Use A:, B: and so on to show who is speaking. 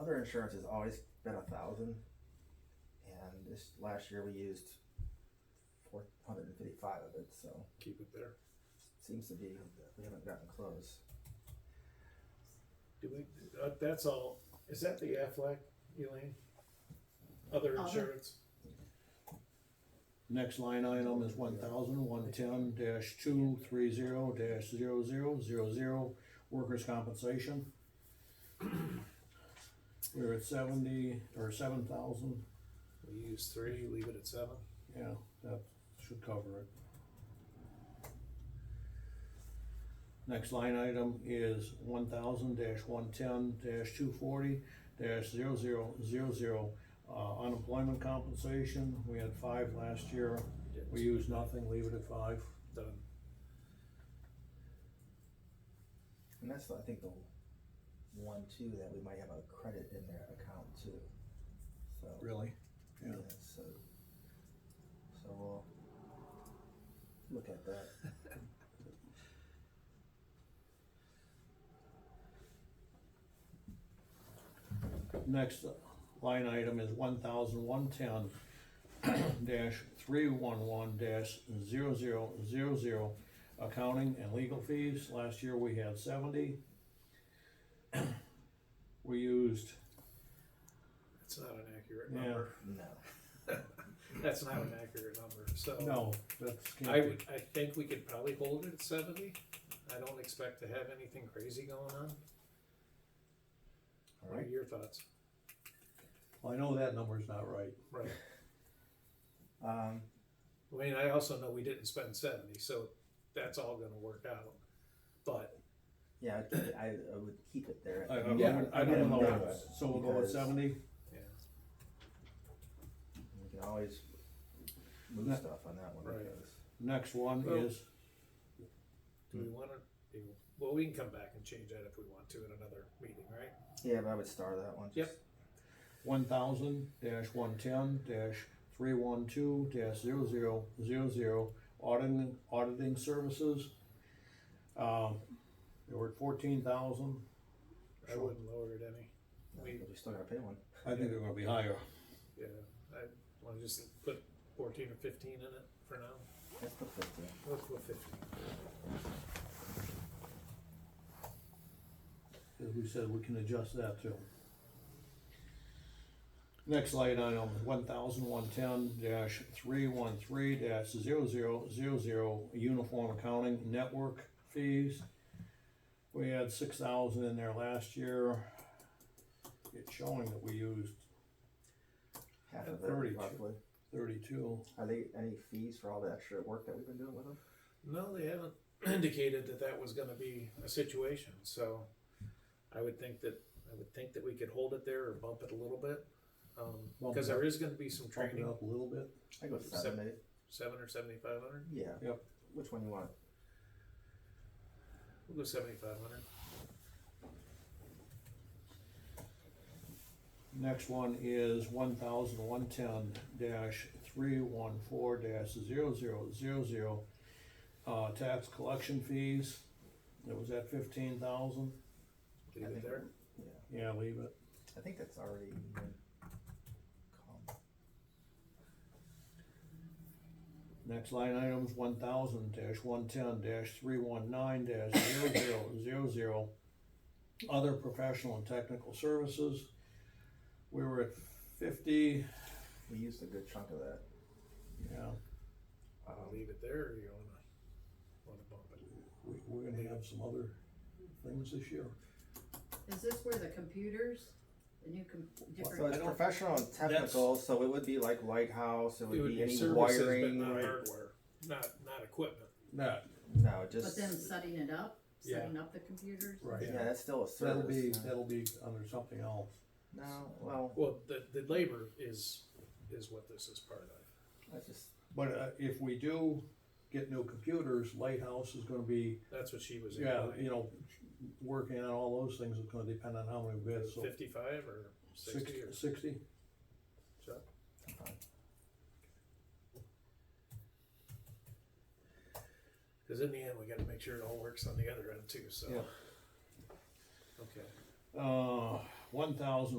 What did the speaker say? A: our insurance has always been a thousand. And this last year we used four hundred and fifty-five of it, so
B: keep it there.
A: seems to be, we haven't gotten close.
B: Do we, uh, that's all, is that the Aflac, Elaine? Other
C: Other.
B: insurance?
D: Next line item is one thousand one ten dash two three zero dash zero zero zero zero, workers' compensation. We're at seventy, or seven thousand,
B: We use three, leave it at seven.
D: yeah, that should cover it. Next line item is one thousand dash one ten dash two forty dash zero zero zero zero, uh, unemployment compensation, we had five last year, we use nothing, leave it at five.
B: Done.
A: And that's, I think, the one too, that we might have a credit in their account too. So,
D: Really?
A: yeah,
D: Yeah.
A: so, so we'll look at that.
D: Next line item is one thousand one ten dash three one one dash zero zero zero zero. Accounting and legal fees, last year we had seventy. We used,
B: That's not an accurate
D: Yeah.
B: number.
A: No,
B: That's not an accurate number, so.
D: no, that's. can't
B: I
D: be-
B: would, I think we could probably hold it at seventy. I don't expect to have anything crazy going on.
D: All
B: What are
D: right,
B: your thoughts?
D: well, I know that number's not right.
B: Right.
A: um,
B: I mean, I also know we didn't spend seventy, so that's all gonna work out. But
A: yeah, I'd keep it- I, I would keep it there.
D: I- I
B: Yeah,
D: wouldn't- I
B: I don't
D: don't know,
A: know.
D: so we'll go with
A: Because-
D: seventy?
A: We can always move
D: No.
A: stuff on that one
B: Right.
A: because
D: Next one
B: Well-
D: is,
B: do
D: Hmm.
B: we wanna, do- well, we can come back and change that if we want to in another meeting, right?
A: yeah, but I would star that one.
B: Yep.
A: just-
D: one thousand dash one ten dash three one two dash zero zero zero zero auditing, auditing services. Um, they were at fourteen thousand,
B: I
D: Sure.
B: wouldn't lower it any.
A: no,
B: We-
A: but We still gotta pay one.
D: I think they're gonna be higher.
B: Yeah, I wanna just put fourteen or fifteen in it for now.
A: Let's put fifteen.
B: Let's go fifteen.
D: As we said, we can adjust that too. Next line item, one thousand one ten dash three one three dash zero zero zero zero, uniform accounting network fees. We had six thousand in there last year. It's showing that we used
A: Half of it
D: Thirty-two.
A: roughly.
D: thirty-two.
A: Are they any fees for all the extra work that we've been doing with them?
B: No, they haven't indicated that that was gonna be a situation, so I would think that, I would think that we could hold it there or bump it a little bit. Um,
D: Bump
B: cause
D: it up.
B: there is gonna be some
D: Bump it
B: training,
D: up a little bit.
A: I go
B: Seven.
A: seven, maybe.
B: seven or seventy-five hundred,
A: Yeah.
D: Yep.
A: Which one you want?
B: we'll go seventy-five hundred.
D: Next one is one thousand one ten dash three one four dash zero zero zero zero. Uh, tax collection fees, it was at fifteen thousand,
B: Leave
A: I
B: it
A: think-
B: there,
A: Yeah.
D: yeah, leave it.
A: I think that's already been called.
D: Next line item's one thousand dash one ten dash three one nine dash zero zero zero zero. Other professional and technical services, we were at fifty,
A: We used a good chunk of that.
D: yeah,
B: Wanna
A: Um,
B: leave it there, or you wanna, wanna bump it?
D: we, we're gonna have some other things this year.
C: Is this where the computers, the new com-
A: so
C: different?
A: it's professional and technical, so it would be like lighthouse. It would,
B: It would
A: be,
B: be
A: any
B: services, but
A: wiring.
B: not hardware, not, not equipment.
D: That,
A: No,
C: But
A: just
C: then setting it up,
B: Yeah.
C: setting up the computers?
D: right.
A: yeah, that's still a
D: So That'll be,
A: service.
D: that'll be under something else.
A: no, well,
B: Well, the, the labor is, is what this is part of.
A: that's just
D: But uh, if we do get new computers, Lighthouse is gonna be,
B: That's what she was.
D: yeah,
B: implying.
D: you know, working on all those things is gonna depend on how many bids, so.
B: Fifty-five or
D: six-
B: sixty or
D: Sixty,
B: so?
A: fine.
B: Cause in the end, we gotta make sure it all works on the other end too, so.
D: Yeah.
B: Okay.
D: uh, one thousand